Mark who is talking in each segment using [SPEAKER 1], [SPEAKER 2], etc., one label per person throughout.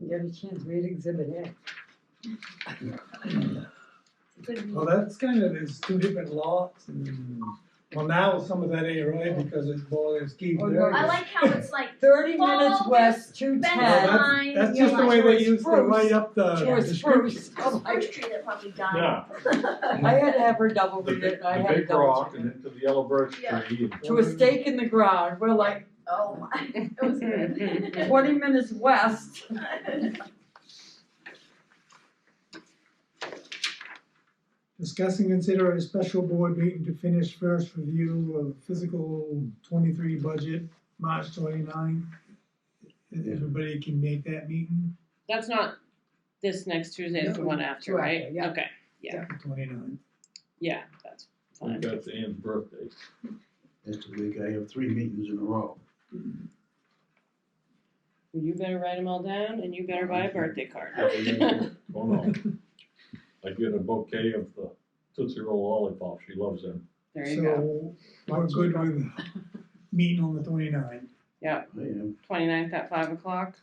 [SPEAKER 1] you got a chance, read exhibit
[SPEAKER 2] Well,
[SPEAKER 1] A.
[SPEAKER 2] that's kind of, there's two different lots and, well, now some of that ain't right because it's Boiler's Keep
[SPEAKER 1] Oh,
[SPEAKER 2] there.
[SPEAKER 3] I like how it's like
[SPEAKER 1] Thirty
[SPEAKER 3] Follow
[SPEAKER 1] minutes
[SPEAKER 3] this
[SPEAKER 1] west, two
[SPEAKER 3] fence
[SPEAKER 2] Well,
[SPEAKER 1] ten.
[SPEAKER 4] Oh,
[SPEAKER 2] that's-
[SPEAKER 3] line.
[SPEAKER 2] That's
[SPEAKER 3] you
[SPEAKER 2] just the
[SPEAKER 3] know,
[SPEAKER 2] way
[SPEAKER 3] like,
[SPEAKER 1] George
[SPEAKER 2] they used to
[SPEAKER 1] Bruce.
[SPEAKER 2] write up the
[SPEAKER 1] George
[SPEAKER 2] descriptions.
[SPEAKER 1] Bruce. Oh,
[SPEAKER 3] First
[SPEAKER 1] I
[SPEAKER 3] tree that probably died.
[SPEAKER 4] Yeah.
[SPEAKER 1] I had to have her double
[SPEAKER 4] The
[SPEAKER 1] read
[SPEAKER 4] big,
[SPEAKER 1] it, and I
[SPEAKER 4] the
[SPEAKER 1] had to
[SPEAKER 4] big
[SPEAKER 1] double
[SPEAKER 4] rock
[SPEAKER 1] check
[SPEAKER 4] and
[SPEAKER 1] it.
[SPEAKER 4] into the yellow birch tree.
[SPEAKER 3] Yeah.
[SPEAKER 4] and-
[SPEAKER 1] To a stake in the ground, we're like
[SPEAKER 3] Oh my, it was good.
[SPEAKER 1] twenty minutes west.
[SPEAKER 2] Discuss and consider a special board meeting to finish first review of physical twenty-three budget, March twenty-nine. If Everybody can make that meeting,
[SPEAKER 5] That's not this next Tuesday, it's the
[SPEAKER 1] No,
[SPEAKER 5] one after,
[SPEAKER 1] two after,
[SPEAKER 5] right?
[SPEAKER 1] yeah.
[SPEAKER 5] Okay,
[SPEAKER 2] twenty-nine.
[SPEAKER 5] yeah, that's
[SPEAKER 4] I think
[SPEAKER 5] fine.
[SPEAKER 4] That's Ann's birthday.
[SPEAKER 6] Next week, I have three meetings in a row.
[SPEAKER 5] You better write them all down and you better
[SPEAKER 1] Mm-hmm.
[SPEAKER 5] buy a birthday card.
[SPEAKER 4] Oh, no. I get a bouquet of the Tootsie Roll lollipops. She loves them.
[SPEAKER 5] There you go.
[SPEAKER 2] So, we're good with meeting on the twenty-nine.
[SPEAKER 6] I am,
[SPEAKER 5] Twenty-ninth at five o'clock.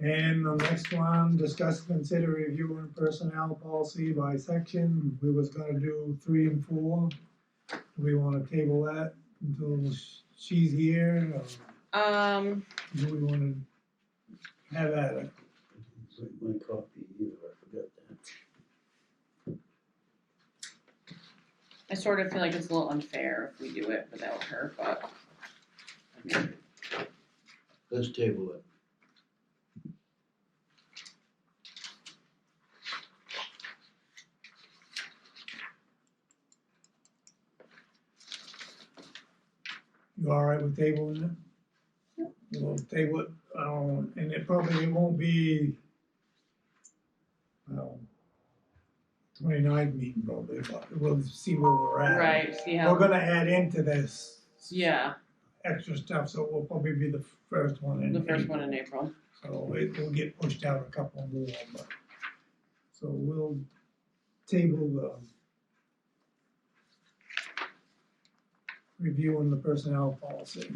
[SPEAKER 2] And the next one, discuss, consider reviewing personnel policy by section, we was gonna do three and four. Do we wanna table that until sh- she's here, or
[SPEAKER 5] Um,
[SPEAKER 2] do we wanna have at it?
[SPEAKER 6] it's like my copy either, I forgot that.
[SPEAKER 5] I sort of feel like it's a little unfair if we do it without her, but. I mean,
[SPEAKER 6] Let's table it.
[SPEAKER 2] You alright with tabling it? We'll table it, um, and it probably won't be, well, twenty-nine meeting probably, but we'll see where we're at.
[SPEAKER 5] Right, see
[SPEAKER 2] We're
[SPEAKER 5] how,
[SPEAKER 2] gonna add into this.
[SPEAKER 5] yeah,
[SPEAKER 2] extra stuff, so we'll probably be the first one in.
[SPEAKER 5] the first one in April.
[SPEAKER 2] So it will get pushed out a couple more, but, so we'll table the review on the personnel policy.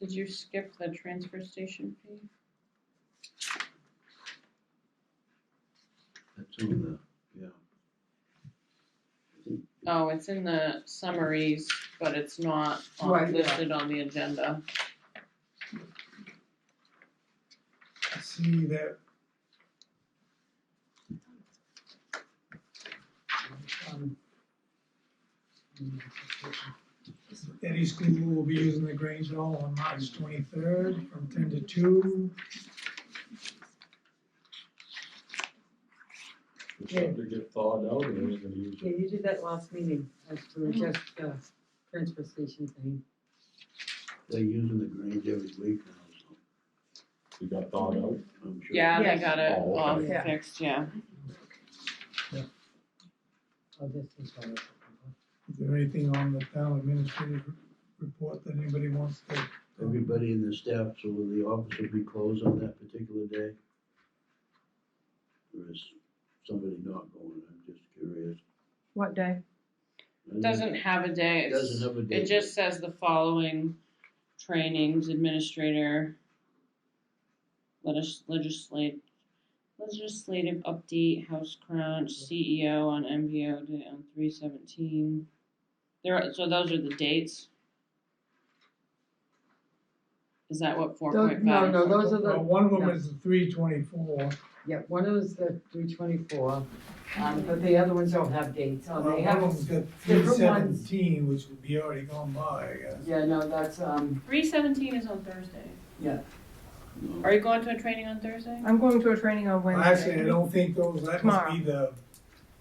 [SPEAKER 5] Did you skip the transfer station fee?
[SPEAKER 6] That's on the, yeah.
[SPEAKER 5] Oh, it's in the summaries, but it's not on-
[SPEAKER 1] Right, yeah.
[SPEAKER 5] listed on the agenda.
[SPEAKER 2] I See that. um, Eddie School will be using the Grange Hall on March twenty-third from ten to two.
[SPEAKER 4] It's starting to get thawed out and we're gonna use
[SPEAKER 1] Yeah,
[SPEAKER 4] it.
[SPEAKER 1] you did that last meeting, as for just the transfer station thing.
[SPEAKER 6] They're using the Grange every week now, so
[SPEAKER 4] She got thawed out.
[SPEAKER 6] I'm sure.
[SPEAKER 5] Yeah, they
[SPEAKER 1] Yes.
[SPEAKER 5] got it
[SPEAKER 4] Oh,
[SPEAKER 5] all
[SPEAKER 1] okay. Yeah.
[SPEAKER 5] fixed, yeah.
[SPEAKER 1] Oh, this is all right.
[SPEAKER 2] Is there anything on the town administrative report that anybody wants to?
[SPEAKER 6] Everybody in the staff, so will the office will be closed on that particular day? Or is somebody not going, I'm just curious.
[SPEAKER 7] What day?
[SPEAKER 5] Doesn't have a day. it's-
[SPEAKER 6] Doesn't have a day.
[SPEAKER 5] It just says the following trainings, administrator, legis- legislate, legislative update, house crunch, CEO on MBO day on three seventeen. There, are- so those are the dates? Is that what four
[SPEAKER 1] Those-
[SPEAKER 5] point
[SPEAKER 1] No,
[SPEAKER 5] five?
[SPEAKER 1] no, those are
[SPEAKER 2] Well,
[SPEAKER 1] the,
[SPEAKER 2] one of them is three twenty-four.
[SPEAKER 1] yeah, one of those, the three twenty-four, um, but the other ones don't have dates, on Oh,
[SPEAKER 4] Oh.
[SPEAKER 1] they have,
[SPEAKER 2] One of them's got three
[SPEAKER 1] different ones.
[SPEAKER 2] seventeen, which would be already gone by, I guess.
[SPEAKER 1] yeah, no, that's, um,
[SPEAKER 5] Three seventeen is on Thursday.
[SPEAKER 6] No.
[SPEAKER 5] Are you going to a training on Thursday?
[SPEAKER 7] I'm going to a training on Wednesday.
[SPEAKER 2] Actually, I don't think those, that must be the,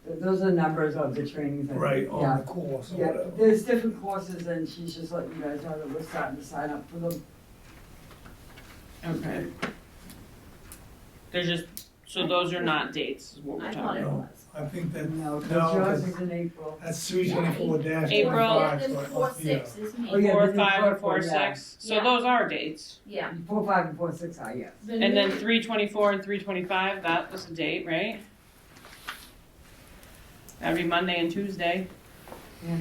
[SPEAKER 1] th- those are numbers of the trainings. I think,
[SPEAKER 2] right,
[SPEAKER 4] oh,
[SPEAKER 1] yeah.
[SPEAKER 2] on the course or
[SPEAKER 1] Yeah,
[SPEAKER 2] whatever.
[SPEAKER 1] there's different courses and she's just letting you guys know that we're starting to sign up for them.
[SPEAKER 5] Okay. They're just, so those are not dates, is what we're
[SPEAKER 3] I
[SPEAKER 5] talking
[SPEAKER 3] thought
[SPEAKER 5] about.
[SPEAKER 3] it
[SPEAKER 2] No.
[SPEAKER 3] was.
[SPEAKER 2] I think that,
[SPEAKER 1] No, 'cause
[SPEAKER 2] No,
[SPEAKER 1] yours
[SPEAKER 2] 'cause-
[SPEAKER 1] is in April.
[SPEAKER 2] that's three twenty-four dash
[SPEAKER 5] April.
[SPEAKER 2] twenty-five, so
[SPEAKER 3] Four,
[SPEAKER 2] it
[SPEAKER 3] four,
[SPEAKER 2] must be, a-
[SPEAKER 3] six is
[SPEAKER 1] Oh,
[SPEAKER 3] me,
[SPEAKER 1] yeah.
[SPEAKER 5] Four,
[SPEAKER 1] this is
[SPEAKER 5] five, and
[SPEAKER 1] four,
[SPEAKER 5] four,
[SPEAKER 1] yeah.
[SPEAKER 5] six, so
[SPEAKER 3] Yeah.
[SPEAKER 5] those are dates.
[SPEAKER 3] yeah.
[SPEAKER 1] Four, five, and four, six are, yes.
[SPEAKER 5] And then
[SPEAKER 3] Mm-hmm.
[SPEAKER 5] three twenty-four and three twenty-five, that was a date, right? Every Monday and Tuesday,